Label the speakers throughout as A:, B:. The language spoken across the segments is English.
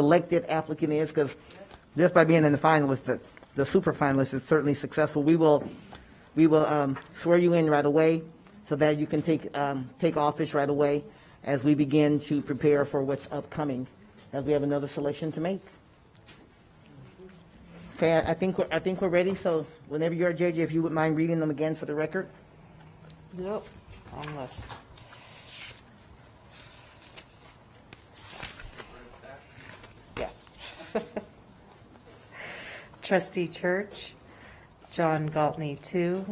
A: selected applicant is, because just by being in the finalist, the, the super finalist is certainly successful. We will, we will um, swear you in right away so that you can take, um, take office right away as we begin to prepare for what's upcoming, as we have another selection to make. Okay, I I think, we're- I think we're ready, so whenever you're, JJ, if you would mind reading them again for the record?
B: Nope, wrong list. Yes.
C: Trustee Church, John Galtney, two.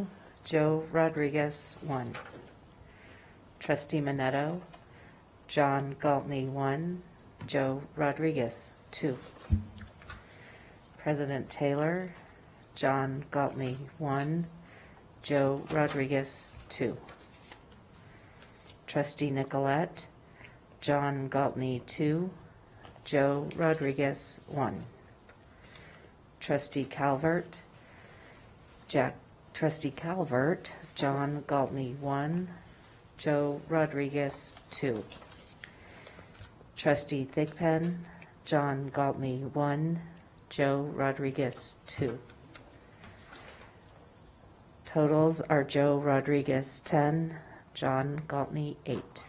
C: Joe Rodriguez, one. Trustee Minetto, John Galtney, one. Joe Rodriguez, two. President Taylor, John Galtney, one. Joe Rodriguez, two. Trustee Nicolette, John Galtney, two. Joe Rodriguez, one. Trustee Calvert, Jack, Trustee Calvert, John Galtney, one, Joe Rodriguez, two. Trustee Thigpen, John Galtney, one, Joe Rodriguez, two. Totals are Joe Rodriguez, ten, John Galtney, eight.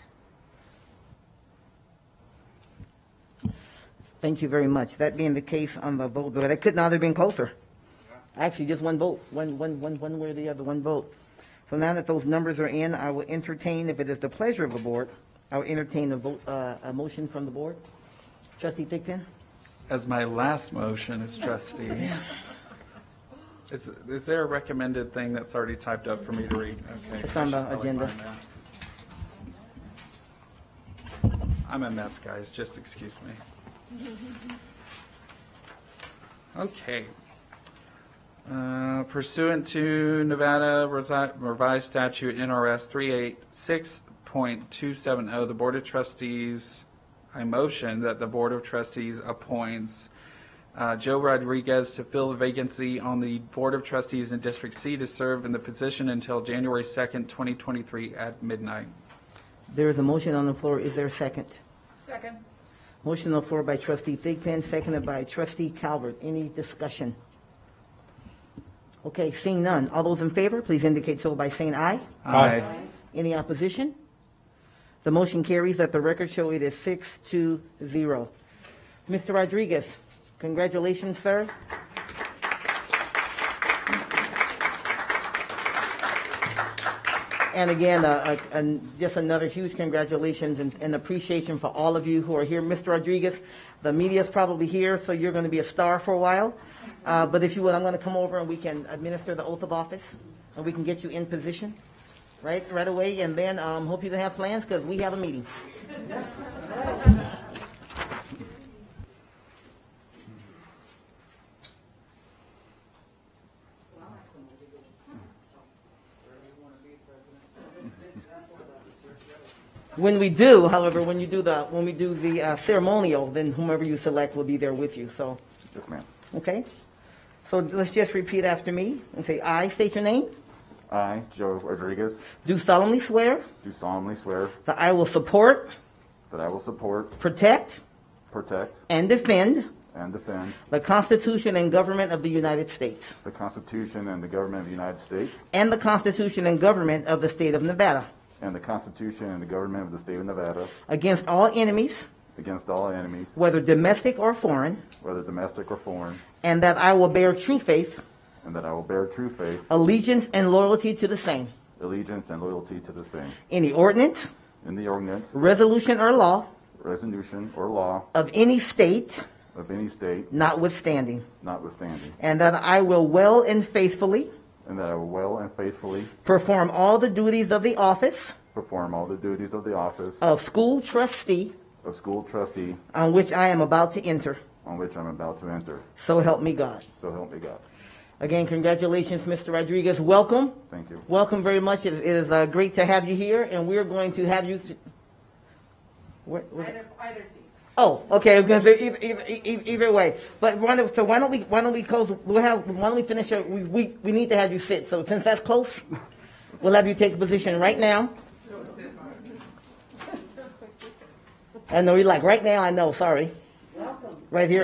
A: Thank you very much. That being the case on the vote, but that could not have been closer. Actually, just one vote, one, one, one, one way or the other, one vote. So now that those numbers are in, I will entertain, if it is the pleasure of the board, I will entertain a vote, uh, a motion from the board. Trustee Thigpen?
D: as my last motion as trustee. Is, is there a recommended thing that's already typed up for me to read? Okay.
A: It's on the
D: I should probably
A: agenda.
D: find that. I'm a mess, guys, just excuse me. Okay. Uh, Pursuant to Nevada Resi- Revised Statute NRS 386.270, oh, the Board of Trustees, I motion that the Board of Trustees appoints uh, Joe Rodriguez to fill the vacancy on the Board of Trustees in District C to serve in the position until January 2nd, 2023 at midnight.
A: There is a motion on the floor. Is there a second?
E: Second.
A: Motion on the floor by trustee Thigpen, seconded by trustee Calvert. Any discussion? Okay, seeing none. All those in favor, please indicate so by saying aye.
D: Aye.
A: Any opposition? The motion carries. Let the record show it is six to zero. Mr. Rodriguez, congratulations, sir. And again, uh, uh, and just another huge congratulations and- and appreciation for all of you who are here. Mr. Rodriguez, the media's probably here, so you're going to be a star for a while. Uh, But if you would, I'm going to come over and we can administer the oath of office, and we can get you in position right, right away. And then um, hope you can have plans because we have a meeting. When we do, however, when you do the, when we do the uh, ceremonial, then whomever you select will be there with you, so,
D: Yes, ma'am.
A: okay? So let's just repeat after me and say, "I" state your name,
F: I, Joe Rodriguez,
A: do solemnly swear
F: do solemnly swear
A: that I will support,
F: that I will support,
A: protect,
F: protect,
A: and defend
F: and defend
A: the Constitution and government of the United States
F: the Constitution and the government of the United States
A: and the Constitution and government of the state of Nevada
F: and the Constitution and the government of the state of Nevada
A: against all enemies,
F: against all enemies,
A: whether domestic or foreign,
F: whether domestic or foreign,
A: and that I will bear true faith,
F: and that I will bear true faith,
A: allegiance, and loyalty to the same.
F: allegiance, and loyalty to the same
A: Any ordinance,
F: in the ordinance,
A: resolution, or law
F: resolution, or law
A: of any state
F: of any state
A: notwithstanding,
F: notwithstanding,
A: and that I will well and faithfully
F: and that I will well and faithfully
A: perform all the duties of the office
F: perform all the duties of the office
A: of school trustee
F: of school trustee
A: on which I am about to enter.
F: on which I'm about to enter.
A: So help me God.
F: So help me God.
A: Again, congratulations, Mr. Rodriguez. Welcome.
F: Thank you.
A: Welcome very much. It it is uh, great to have you here, and we're going to have you. Where- where- Oh, okay. I was gonna say either, either, either, e-, either way, but why don't, so why don't we why don't we close? We'll have why don't we finish? Your, we, we we need to have you sit. So since that's close, we'll have you take a position right now. I know you're like right now. I know. Sorry. Right here